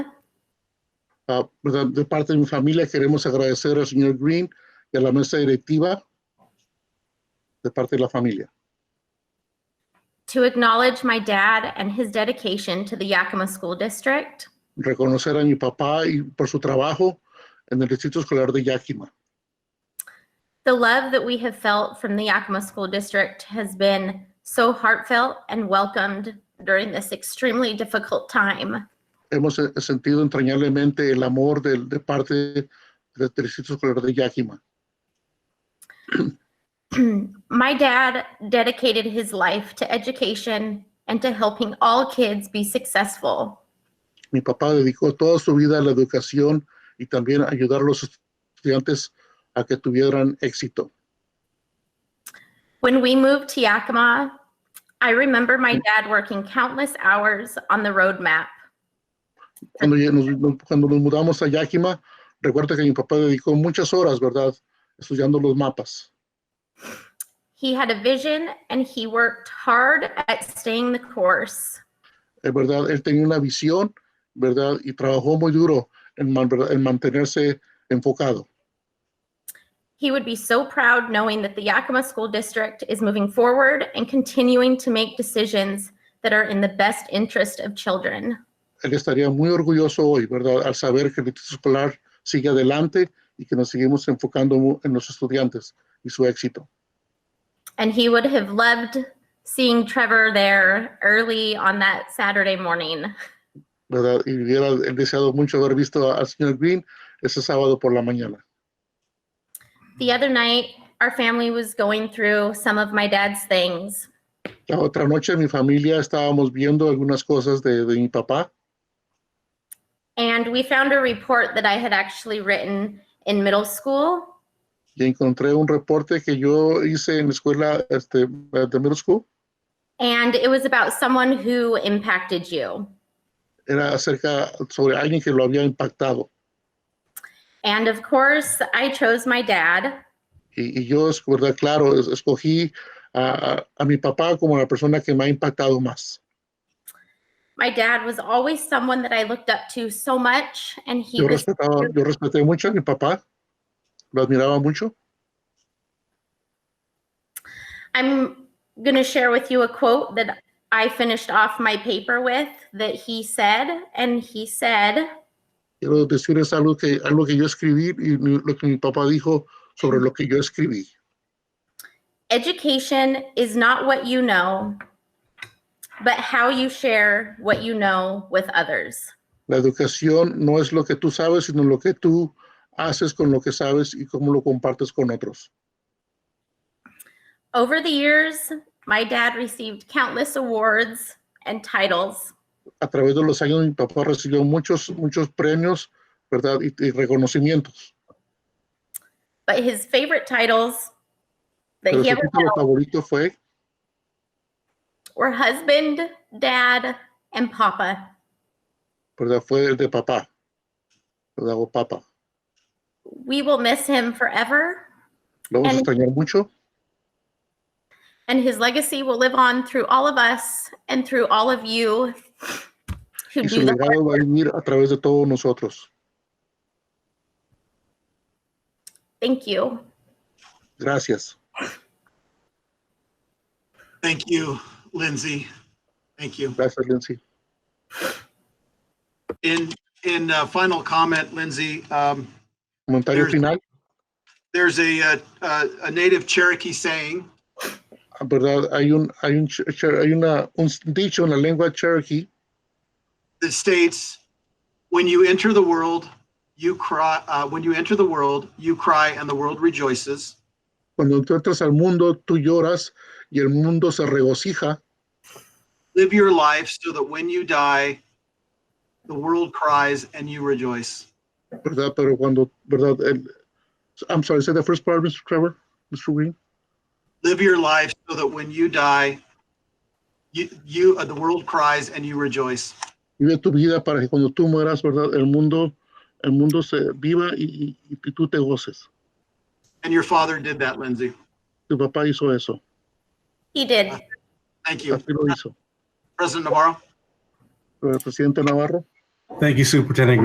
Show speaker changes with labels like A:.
A: Ah, ¿verdad? de parte de mi familia queremos agradecer al señor Green y a la mesa directiva de parte de la familia.
B: to acknowledge my dad and his dedication to the Yakima School District,
A: Reconocer a mi papá y por su trabajo en el Distrito Escolar de Yakima.
B: the love that we have felt from the Yakima School District has been so heartfelt and welcomed during this extremely difficult time.
A: Hemos eh, sentido entrañablemente el amor del- de, parte del Distrito Escolar de Yakima.
B: my dad dedicated his life to education and to helping all kids be successful.
A: Mi papá dedicó toda su vida a la educación y también a ayudar a los estudiantes a que tuvieran éxito.
B: When we moved to Yakima, I remember my dad working countless hours on the roadmap.
A: Cuando ya nos, nos- cuando nos mudamos a Yakima, recuerdo que mi papá dedicó muchas horas, ¿verdad? Estudiando los mapas.
B: He had a vision and he worked hard at staying the course.
A: es verdad, él tenía una visión, ¿verdad? Y trabajó muy duro en, man- ¿verdad? en mantenerse enfocado.
B: He would be so proud knowing that the Yakima School District is moving forward and continuing to make decisions that are in the best interest of children.
A: Él estaría muy orgulloso hoy, ¿verdad? Al saber que el Instituto Escolar sigue adelante y que nos seguimos enfocando mu- en los estudiantes y su éxito.
B: And he would have loved seeing Trevor there early on that Saturday morning.
A: ¿verdad? Y hubiera él deseado mucho haber visto a- al señor Green ese sábado por la mañana.
B: The other night, our family was going through some of my dad's things,
A: La otra noche mi familia estábamos viendo algunas cosas de, de mi papá
B: and we found a report that I had actually written in middle school.
A: y encontré un reporte que yo hice en la escuela este, de middle school.
B: And it was about someone who impacted you.
A: Era acerca sobre alguien que lo había impactado.
B: And of course, I chose my dad.
A: Y, y yo, es verdad, claro, es- escogí a, a- a mi papá como la persona que me ha impactado más.
B: My dad was always someone that I looked up to so much, and he
A: Yo
B: was
A: respetaba, yo respeté mucho a mi papá, lo admiraba mucho.
B: I'm going to share with you a quote that I finished off my paper with that he said. And he said,
A: Quiero decirles algo que, algo que yo escribí y mi- lo que mi papá dijo sobre lo que yo escribí.
B: Education is not what you know, but how you share what you know with others.
A: La educación no es lo que tú sabes, sino lo que tú haces con lo que sabes y cómo lo compartes con otros.
B: Over the years, my dad received countless awards and titles,
A: A través de los años, mi papá recibió muchos, muchos premios, ¿verdad? Y- y reconocimientos.
B: but his favorite titles that
A: Pero
B: he
A: su
B: ever
A: título favorito fue
B: were husband, dad, and papa.
A: ¿verdad? Fue el de papá. ¿verdad? O papa.
B: We will miss him forever,
A: Lo vamos a
B: El-
A: extrañar mucho
B: and his legacy will live on through all of us and through all of you who
A: y su
B: do the
A: legado va a venir a través de todos nosotros.
B: Thank you.
A: Gracias.
C: Thank you, Lindsay. Thank you.
A: Gracias, Lindsay.
C: In, in uh, final comment, Lindsay, um,
A: Comentario
C: There's-
A: final,
C: there's a, uh, uh, a native Cherokee saying,
A: ¿verdad? Hay un, hay un, ch- ch- hay una, un dicho en la lengua cherokee
C: that states, when you enter the world, you cry, uh, when you enter the world, you cry and the world rejoices.
A: cuando tú entras al mundo, tú lloras y el mundo se regocija.
C: Live your life so that when you die, the world cries and you rejoice.
A: ¿verdad? Pero cuando, ¿verdad? El- I'm sorry, say the first part, Mr. Trevor, Mr. Green.
C: Live your life so that when you die, you, you, uh, the world cries and you rejoice.
A: Vive tu vida para que cuando tú mueras, ¿verdad? El mundo, el mundo se viva y- y- y tú te goces.
C: And your father did that, Lindsay.
A: Tu papá hizo eso,
B: He did.
C: Thank you.
A: así lo hizo.
C: President Navarro?
A: El presidente Navarro.
D: Thank you, Superintendent